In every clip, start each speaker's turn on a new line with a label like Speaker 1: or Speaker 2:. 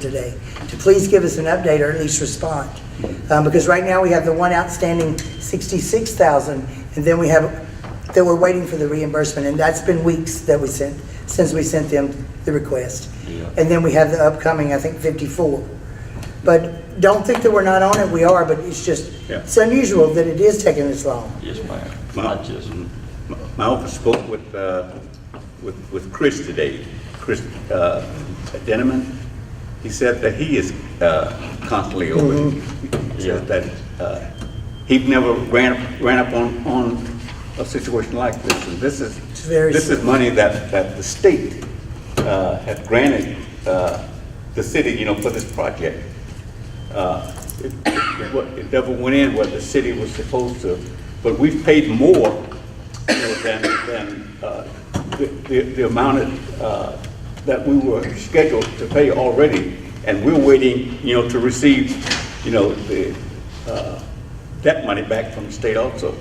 Speaker 1: today, to please give us an update or at least respond. Um, Because right now, we have the one outstanding 66,000, and then we have, that we're waiting for the reimbursement, and that's been weeks that we sent, since we sent them the request. And then we have the upcoming, I think, 54. But don't think that we're not on it, we are, but it's just,
Speaker 2: Yeah.
Speaker 1: it's unusual that it is taking this long.
Speaker 3: Yes, ma'am.
Speaker 2: Well-
Speaker 3: I just,
Speaker 2: My- My office spoke with, uh, with with Chris today, Chris uh, Denneman. He said that he is uh, constantly over it. He says that uh, he never ran, ran up on, on a situation like this. And this is,
Speaker 1: It's very
Speaker 2: this is money that, that the state uh, had granted uh, the city, you know, for this project. Uh, It it wa- it never went in what the city was supposed to, but we've paid more you know, than, than uh, the, the- the amount of, uh, that we were scheduled to pay already, and we're waiting, you know, to receive, you know, the, uh, that money back from the state also.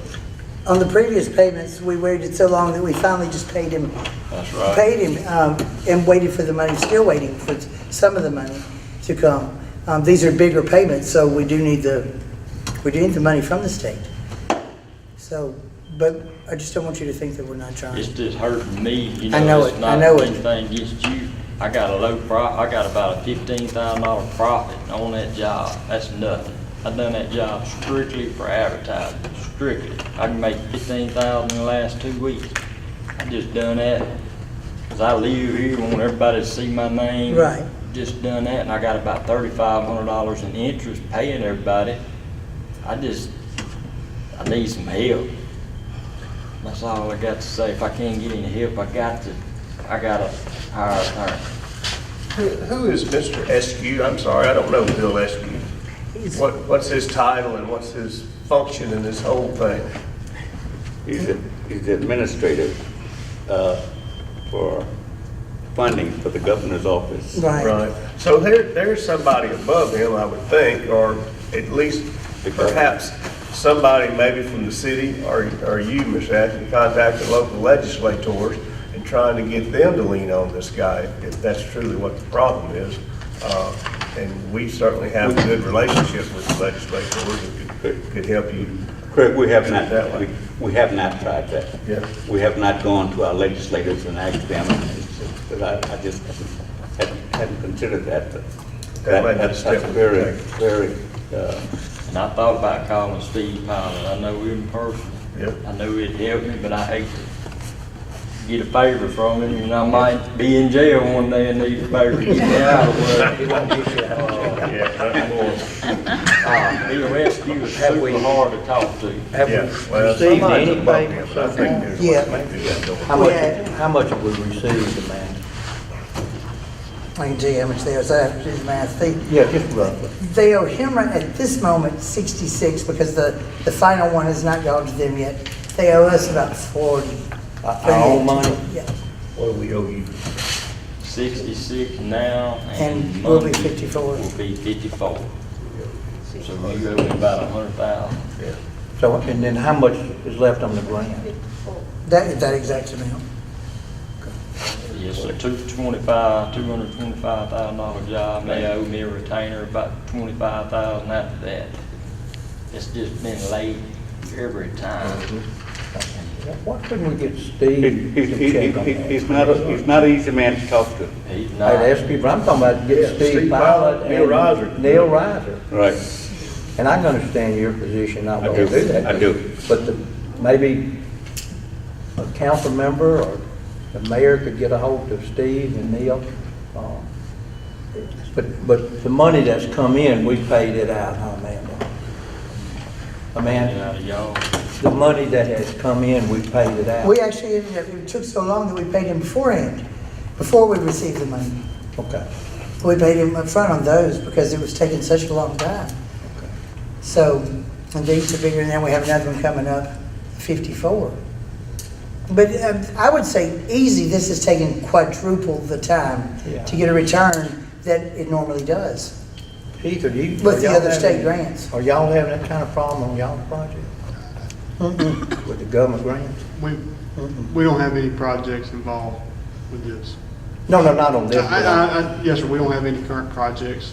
Speaker 1: On the previous payments, we waited so long that we finally just paid him.
Speaker 3: That's right.
Speaker 1: Paid him, um, and waited for the money, still waiting for t- some of the money to come. Um, these are bigger payments, so we do need the, we do need the money from the state. So, but I just don't want you to think that we're not
Speaker 3: it's
Speaker 1: trying.
Speaker 3: just hurting me, you know.
Speaker 1: I know it,
Speaker 3: it's
Speaker 1: I
Speaker 3: not
Speaker 1: know it.
Speaker 3: Anything against you. I got a low pro, I got about a fifteen thousand dollar profit on that job. That's nothing. I done that job strictly for advertising, strictly. I can make fifteen thousand in the last two weeks. I just done that. Cause I live here, want everybody to see my name.
Speaker 1: Right.
Speaker 3: Just done that and I got about thirty-five hundred dollars in interest paying everybody. I just, I need some help. That's all I got to say. If I can't get any help, I got to, I gotta hire an attorney.
Speaker 4: Who who is Mr. Eskew? I'm sorry, I don't know Bill Eskew.
Speaker 1: He's-
Speaker 4: What, what's his title and what's his function in this whole thing?
Speaker 2: He's the, he's the administrative uh, for funding for the governor's office.
Speaker 1: Right,
Speaker 4: Right. So there, there's somebody above him, I would think, or at least perhaps somebody maybe from the city or, or you, Ms. Ashley, contacted local legislators and trying to get them to lean on this guy, if that's truly what the problem is. Uh, And we certainly have a good relationship with the legislators and could, could help you
Speaker 2: Correct, we have
Speaker 4: That
Speaker 2: not,
Speaker 4: way.
Speaker 2: we- we have not tried that.
Speaker 4: Yeah.
Speaker 2: We have not gone to our legislators and asked them, but I, I just hadn't- hadn't considered that. but
Speaker 4: That might be a
Speaker 2: that's- That's
Speaker 4: step we
Speaker 2: very,
Speaker 4: could
Speaker 2: very, uh,
Speaker 3: And I thought about calling Steve Pilot. I know him personally.
Speaker 4: Yep.
Speaker 3: I know he'd help me, but I hate to get a favor from him, and I might be in jail one day and need a favor to get me out of work.
Speaker 4: Yeah, nothing more.
Speaker 3: Uh, He arrested you, was super hard to talk to.
Speaker 5: Have we
Speaker 4: Yeah, well,
Speaker 5: received
Speaker 4: somebody's above
Speaker 5: anything
Speaker 4: him,
Speaker 5: or
Speaker 4: but I
Speaker 5: something?
Speaker 4: think there's-
Speaker 1: Yeah.
Speaker 4: maybe there's no-
Speaker 5: How much, how much have we received, Amanda?
Speaker 1: I can tell you how much they are, so I have to do the math. They,
Speaker 5: Yeah, just roughly.
Speaker 1: they owe him right at this moment 66 because the, the final one has not gone to them yet. They owe us about 40.
Speaker 5: Our own money?
Speaker 1: Yeah.
Speaker 4: What do we owe you?
Speaker 3: Sixty-six now, and
Speaker 1: And we'll be
Speaker 3: Monday
Speaker 1: 54.
Speaker 3: Will be fifty-four. So we owe him about a hundred thousand.
Speaker 4: Yeah.
Speaker 5: So, and then how much is left on the grant?
Speaker 1: That, that exact amount.
Speaker 3: Yes, sir, two twenty-five, two hundred twenty-five thousand dollar job, they owe me a retainer about twenty-five thousand after that. It's just been late every time.
Speaker 5: Why couldn't we get
Speaker 2: he-
Speaker 5: Steve
Speaker 2: he-
Speaker 5: to
Speaker 2: he-
Speaker 5: check on
Speaker 2: he-
Speaker 5: that?
Speaker 2: he's not, a- he's not an easy man to talk to.
Speaker 3: He's not,
Speaker 5: I'd ask people, I'm talking about
Speaker 4: Yeah,
Speaker 5: get Steve
Speaker 4: Steve
Speaker 5: Pilot
Speaker 4: Pilot, Neil Riser.
Speaker 5: and Neil Riser.
Speaker 2: Right.
Speaker 5: And I can understand your position, I
Speaker 2: I
Speaker 5: will do
Speaker 2: do.
Speaker 5: that.
Speaker 2: I do.
Speaker 5: But the- maybe a council member or the mayor could get a hold of Steve and Neil. uh, But, but the money that's come in, we paid it out, huh, Amanda?
Speaker 3: get
Speaker 5: Amanda,
Speaker 3: out of y'all.
Speaker 5: the money that has come in, we paid it out.
Speaker 1: We actually, ended up- it took so long that we paid him beforehand, before we received the money.
Speaker 5: Okay.
Speaker 1: We paid him upfront on those because it was taking such a long time. So, and these are bigger, and then we have another one coming up, 54. But um, I would say easy, this is taking quadruple the time
Speaker 5: Yeah.
Speaker 1: to get a return that it normally does.
Speaker 5: Keith, are you?
Speaker 1: With
Speaker 5: are
Speaker 1: the
Speaker 5: y'all
Speaker 1: other state
Speaker 5: having-
Speaker 1: grants.
Speaker 5: Are y'all having that kind of problem on y'all's project? With the government grants?
Speaker 6: We, we don't have any projects involved with this.
Speaker 5: No, no, not on this.
Speaker 6: I,
Speaker 5: but on-
Speaker 6: I, I, yes, sir, we don't have any current projects